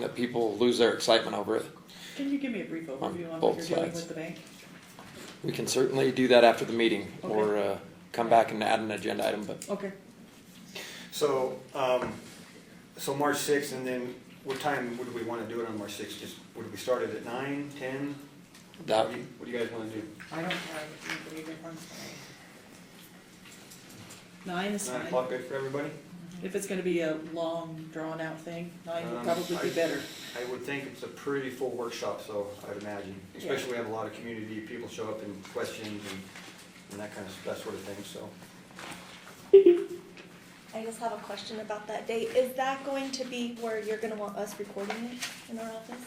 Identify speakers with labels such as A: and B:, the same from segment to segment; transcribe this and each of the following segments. A: that people lose their excitement over it.
B: Can you give me a brief overview on what
A: both
B: you're doing
A: sides.
B: with the bank?
A: We can certainly do that after the meeting or
B: Okay.
A: uh, come back and add an agenda item, but
B: Okay,
C: So, um, so March sixth, and then what time would we wanna do it on March sixth? Just, would we start it at nine, ten?
A: that,
C: What do you- what do you guys wanna do?
B: I don't have anything even on Nine is
C: Nine
B: fine.
C: o'clock good for everybody?
B: If it's gonna be a long, drawn-out thing, nine would
C: Um,
B: probably be
C: I-
B: better.
C: I would think it's a pretty full workshop, so I'd imagine, especially we have a lot of community, people show up and questions and, and that kind of, that sort of thing, so.
D: I just have a question about that date. Is that going to be where you're gonna want us recording it in our office?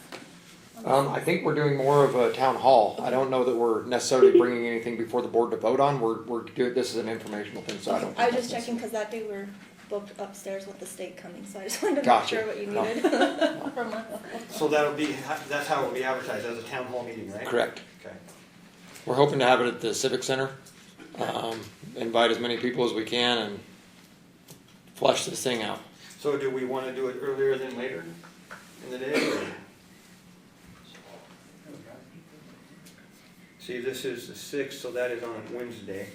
A: um, I think we're doing more of a town hall. I don't know that we're necessarily bringing anything before the board to vote on. We're, we're doing, this is an informational thing, so I don't.
D: I was
A: think
D: just
A: that's
D: checking, cause that day we're booked upstairs with the state coming, so I just wanted to make
A: Gotcha.
D: sure what you
A: No.
D: needed. from us.
C: So that'll be, that's how it'll be advertised, as a town hall meeting, right?
A: Correct.
C: Okay.
A: We're hoping to have it at the Civic Center. Um, invite as many people as we can and flush this thing out.
C: So do we wanna do it earlier than later in the day? or- See, this is the sixth, so that is on Wednesday.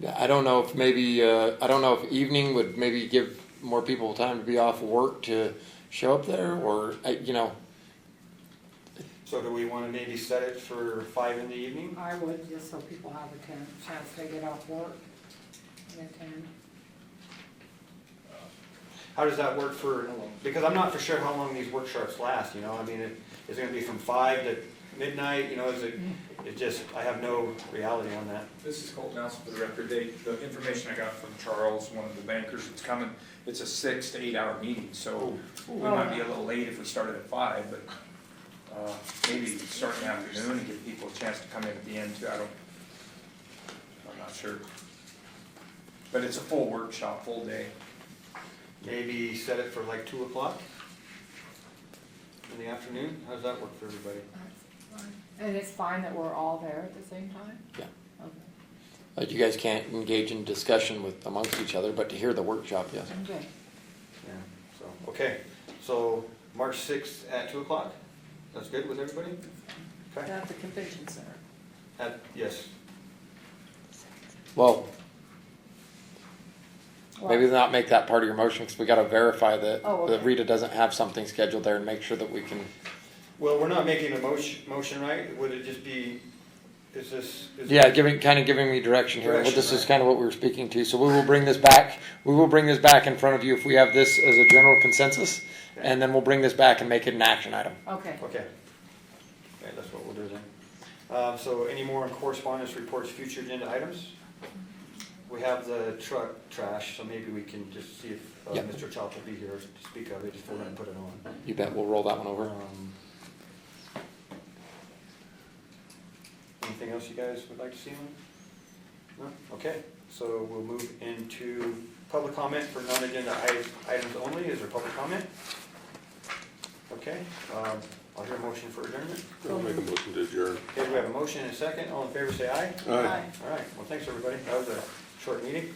A: Yeah, I don't know if maybe, uh, I don't know if evening would maybe give more people time to be off work to show up there or, uh, you know,
C: So do we wanna maybe set it for five in the evening?
E: I would, just so people have a ten- chance to get off work and attend.
C: How does that work for, because I'm not for sure how long these workshops last, you know, I mean, it, is it gonna be from five to midnight, you know, is it, it just, I have no reality on that.
F: This is Colton Nelson for the record. They, the information I got from Charles, one of the bankers that's coming, it's a six to eight hour meeting, so we might be a little late if we started at five, but, uh, maybe start in the afternoon and give people a chance to come in at the end too. I don't, I'm not sure. But it's a full workshop, full day.
C: Maybe set it for like two o'clock in the afternoon, how does that work for everybody?
E: And it's fine that we're all there at the same time?
A: Yeah.
E: Okay,
A: uh, you guys can't engage in discussion with, amongst each other, but to hear the workshop, yes.
E: I'm good.
C: Yeah, so, okay, so March sixth at two o'clock, that's good with everybody? Okay,
B: At the convention center.
C: at, yes,
A: Well, maybe
E: Well,
A: not make that part of your motion because we got to verify that,
E: Oh,
A: that
E: okay.
A: Rita doesn't have something scheduled there and make sure that we can,
C: well, we're not making a motion, motion, right, would it just be, is this? is-
A: yeah, giving, kind of giving me direction here. But
C: Direction,
A: this is
C: right.
A: kind of what we were speaking to. So we will bring this back. We will bring this back in front of you if we have this as a general consensus. And then we'll bring this back and make it an action item.
E: Okay,
C: Okay, okay, that's what we'll do then. Uh, so any more on correspondence reports, future agenda items? We have the truck trash, so maybe we can just see if, uh,
A: Yeah.
C: Mr. Chop will be here to speak of it, if we're gonna put it on.
A: You bet we'll roll that one over.
C: Um, Anything else you guys would like to see on? it? No? Okay, so we'll move into public comment for non-agenda i- items only. Is there public comment? Okay, um, I'll hear a motion for adjournment.
G: I'll make a motion to adjourn.
C: Okay, we have a motion and a second. All in favor, say aye.
G: Aye.
E: bye.
C: All right, well, thanks, everybody. That was a short meeting.